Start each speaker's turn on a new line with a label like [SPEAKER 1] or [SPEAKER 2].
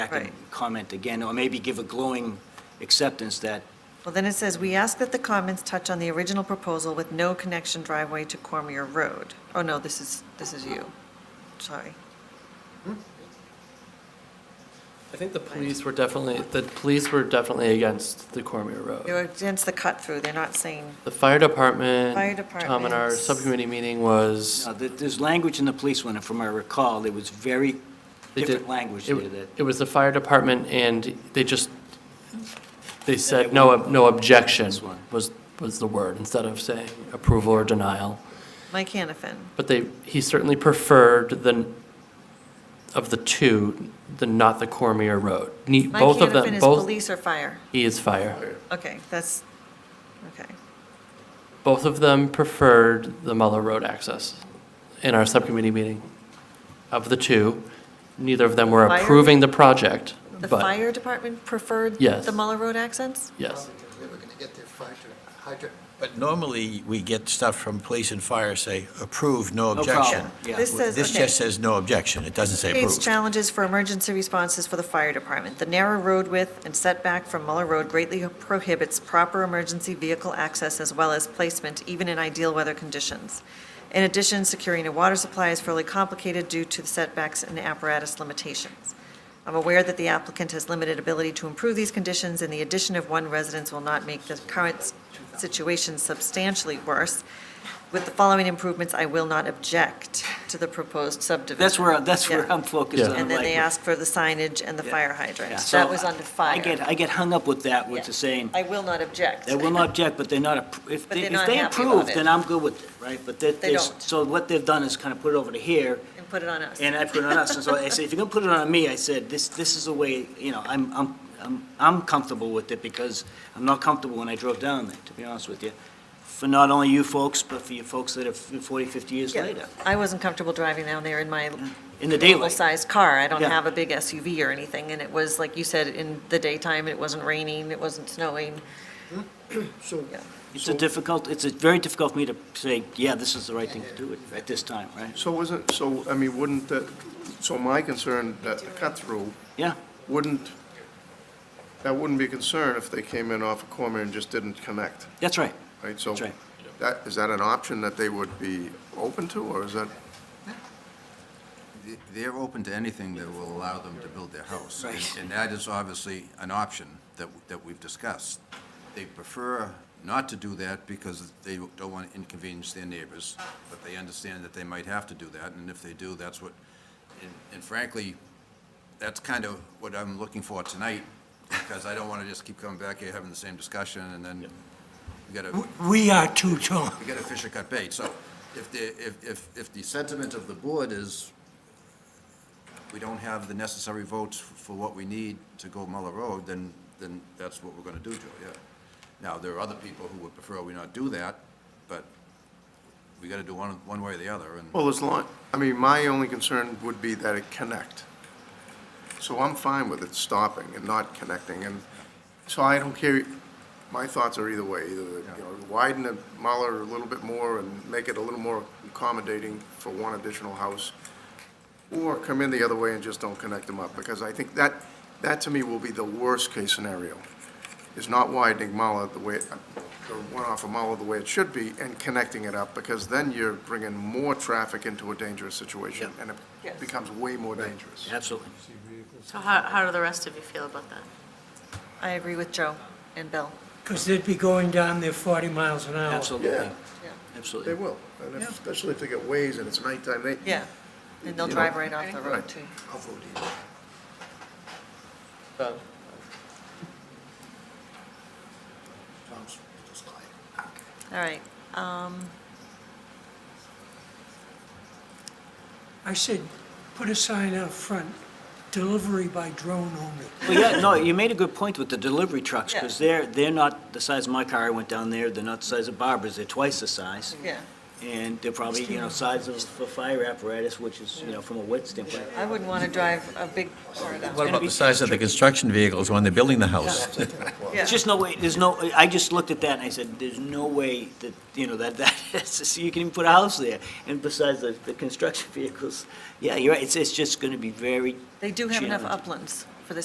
[SPEAKER 1] back and
[SPEAKER 2] Right.
[SPEAKER 1] comment again, or maybe give a glowing acceptance that,
[SPEAKER 2] Well, then it says, "We ask that the comments touch on the original proposal with no connection driveway to Cormier Road." Oh, no, this is, this is you. Sorry.
[SPEAKER 3] I think the police were definitely, the police were definitely against the Cormier Road.
[SPEAKER 2] They're against the cut-through. They're not saying,
[SPEAKER 3] The fire
[SPEAKER 2] Fire
[SPEAKER 3] department, Tom and our
[SPEAKER 2] departments.
[SPEAKER 3] subcommittee meeting was,
[SPEAKER 1] now, there- there's language in the police one, and from what I recall, there was very
[SPEAKER 3] They did-
[SPEAKER 1] different language there that,
[SPEAKER 3] it it was the fire department and they just, they said no, ob- no objection
[SPEAKER 1] This one.
[SPEAKER 3] was, was the word instead of saying approval or denial.
[SPEAKER 2] Mike Hanafin.
[SPEAKER 3] But they, he certainly preferred the, of the two, the not the Cormier Road. Ne-
[SPEAKER 2] Mike
[SPEAKER 3] Both of
[SPEAKER 2] Hanafin
[SPEAKER 3] them,
[SPEAKER 2] is
[SPEAKER 3] both,
[SPEAKER 2] police or fire?
[SPEAKER 3] he is fire.
[SPEAKER 2] Okay, that's, okay.
[SPEAKER 3] Both of them preferred the Muller Road access in our subcommittee meeting. Of the two, neither of them were
[SPEAKER 2] Fire?
[SPEAKER 3] approving the project,
[SPEAKER 2] The
[SPEAKER 3] but,
[SPEAKER 2] fire department preferred
[SPEAKER 3] Yes.
[SPEAKER 2] the Muller Road accents?
[SPEAKER 3] yes.
[SPEAKER 4] They were gonna get their fire hydrant.
[SPEAKER 5] But normally, we get stuff from police and fire say, approve, no
[SPEAKER 1] No
[SPEAKER 5] objection.
[SPEAKER 1] problem. Yeah.
[SPEAKER 2] This says,
[SPEAKER 5] This
[SPEAKER 2] okay.
[SPEAKER 5] just says no objection, it doesn't say
[SPEAKER 2] Creates
[SPEAKER 5] approved.
[SPEAKER 2] challenges for emergency responses for the fire department. The narrow road width and setback from Muller Road greatly prohibits proper emergency vehicle access as well as placement, even in ideal weather conditions. In addition, securing a water supply is fairly complicated due to the setbacks and apparatus limitations. I'm aware that the applicant has limited ability to improve these conditions, and the addition of one residence will not make the current s- situation substantially worse. With the following improvements, I will not object to the proposed subdivision.
[SPEAKER 1] that's where, that's where
[SPEAKER 2] Yeah.
[SPEAKER 1] I'm focused on
[SPEAKER 3] Yeah.
[SPEAKER 2] And then
[SPEAKER 1] language.
[SPEAKER 2] they asked for the signage and the fire
[SPEAKER 1] Yeah,
[SPEAKER 2] hydrants.
[SPEAKER 1] so
[SPEAKER 2] That was under fire.
[SPEAKER 1] I get, I get hung up with that, with
[SPEAKER 2] Yeah.
[SPEAKER 1] the saying,
[SPEAKER 2] I will not object.
[SPEAKER 1] they will not object, but they're not, appro- if
[SPEAKER 2] But
[SPEAKER 1] they,
[SPEAKER 2] they're
[SPEAKER 1] if
[SPEAKER 2] not
[SPEAKER 1] they
[SPEAKER 2] happy about
[SPEAKER 1] approve,
[SPEAKER 2] it.
[SPEAKER 1] then I'm good with it, right? But that,
[SPEAKER 2] They
[SPEAKER 1] there's-
[SPEAKER 2] don't.
[SPEAKER 1] so what they've done is kind of put it over to here,
[SPEAKER 2] And put it on us.
[SPEAKER 1] And I put it on us, and so I said, if you're gonna put it on me, I said, this, this is the way, you know, I'm, I'm, I'm, I'm comfortable with it, because I'm not comfortable when I drove down there, to be honest with you. For not only you folks, but for you folks that have 40, 50 years
[SPEAKER 2] Yeah.
[SPEAKER 1] later,
[SPEAKER 2] I wasn't comfortable driving down there in my
[SPEAKER 1] in the daylight.
[SPEAKER 2] normal-sized car. I don't
[SPEAKER 1] Yeah.
[SPEAKER 2] have a big SUV or anything, and it was, like you said, in the daytime, it wasn't raining, it wasn't snowing.
[SPEAKER 4] So,
[SPEAKER 2] Yeah.
[SPEAKER 1] It's a difficult, it's a very difficult for me to say, yeah, this is the right thing to do at- at this time, right?
[SPEAKER 6] So wasn't, so, I mean, wouldn't that, so my concern, that the cut-through,
[SPEAKER 1] Yeah,
[SPEAKER 6] wouldn't, that wouldn't be a concern if they came in off of Cormier and just didn't connect,
[SPEAKER 1] that's right.
[SPEAKER 6] right? So
[SPEAKER 1] That's right.
[SPEAKER 6] that, is that an option that they would be open to, or is that?
[SPEAKER 4] they- They're open to anything that will allow them to build their house. and-
[SPEAKER 1] Right.
[SPEAKER 4] And that is obviously an option that, that we've discussed. They prefer not to do that because they don't want to inconvenience their neighbors, but they understand that they might have to do that, and if they do, that's what, and- and frankly, that's kind of what I'm looking for tonight, because I don't want to just keep coming back here having the same discussion, and then we got to
[SPEAKER 5] We are too, Tom.
[SPEAKER 4] we got to fish or cut bait. So if the, if, if, if the sentiment of the board is we don't have the necessary votes for what we need to go Muller Road, then, then that's what we're going to do, Joe, yeah. Now, there are other people who would prefer we not do that, but we got to do one, one way or the other, and
[SPEAKER 6] Well, as long, I mean, my only concern would be that it connect. So I'm fine with it stopping and not connecting, and so I don't care, my thoughts are either way, either, you know, widen the Muller a little bit more and make it a little more accommodating for one additional house, or come in the other way and just don't connect them up, because I think that, that to me will be the worst-case scenario, is not widening Muller the way, the one off of Muller the way it should be, and connecting it up, because then you're bringing more traffic into a dangerous situation, and
[SPEAKER 2] Yes.
[SPEAKER 6] it becomes way more dangerous.
[SPEAKER 1] Absolutely.
[SPEAKER 7] So how, how do the rest of you feel about that? Mm-hmm.
[SPEAKER 2] I agree with Joe and Bill.
[SPEAKER 8] Because they'd be going down there 40 miles an hour.
[SPEAKER 1] Absolutely.
[SPEAKER 6] They
[SPEAKER 1] Absolutely.
[SPEAKER 6] will, and if- especially if they get ways and it's nighttime, they.
[SPEAKER 2] Yeah. And they'll
[SPEAKER 6] You know,
[SPEAKER 2] drive right off the road,
[SPEAKER 6] right.
[SPEAKER 2] too.
[SPEAKER 6] I'll vote either.
[SPEAKER 4] Tom's just lying.
[SPEAKER 2] All right. um,
[SPEAKER 8] I said, put a sign out front, delivery by drone only.
[SPEAKER 1] Well, yeah, no, you made a good point with the delivery trucks,
[SPEAKER 2] Yeah.
[SPEAKER 1] because they're, they're not the size of my car, I went down there, they're not the size of Barbara's, they're twice the size.
[SPEAKER 2] Yeah,
[SPEAKER 1] And they're probably, you know, size of a fire apparatus, which is, you know, from a weight standpoint.
[SPEAKER 2] I wouldn't want to drive a big car down.
[SPEAKER 5] What about the size of the construction vehicles when they're building the house?
[SPEAKER 2] Yeah.
[SPEAKER 1] There's just no way, there's no, I just looked at that and I said, there's no way that, you know, that, that, so you can even put a house there. And besides the, the construction vehicles, yeah, you're right, it's, it's just gonna be very,
[SPEAKER 2] They do have enough
[SPEAKER 1] Challenging.
[SPEAKER 2] uplands.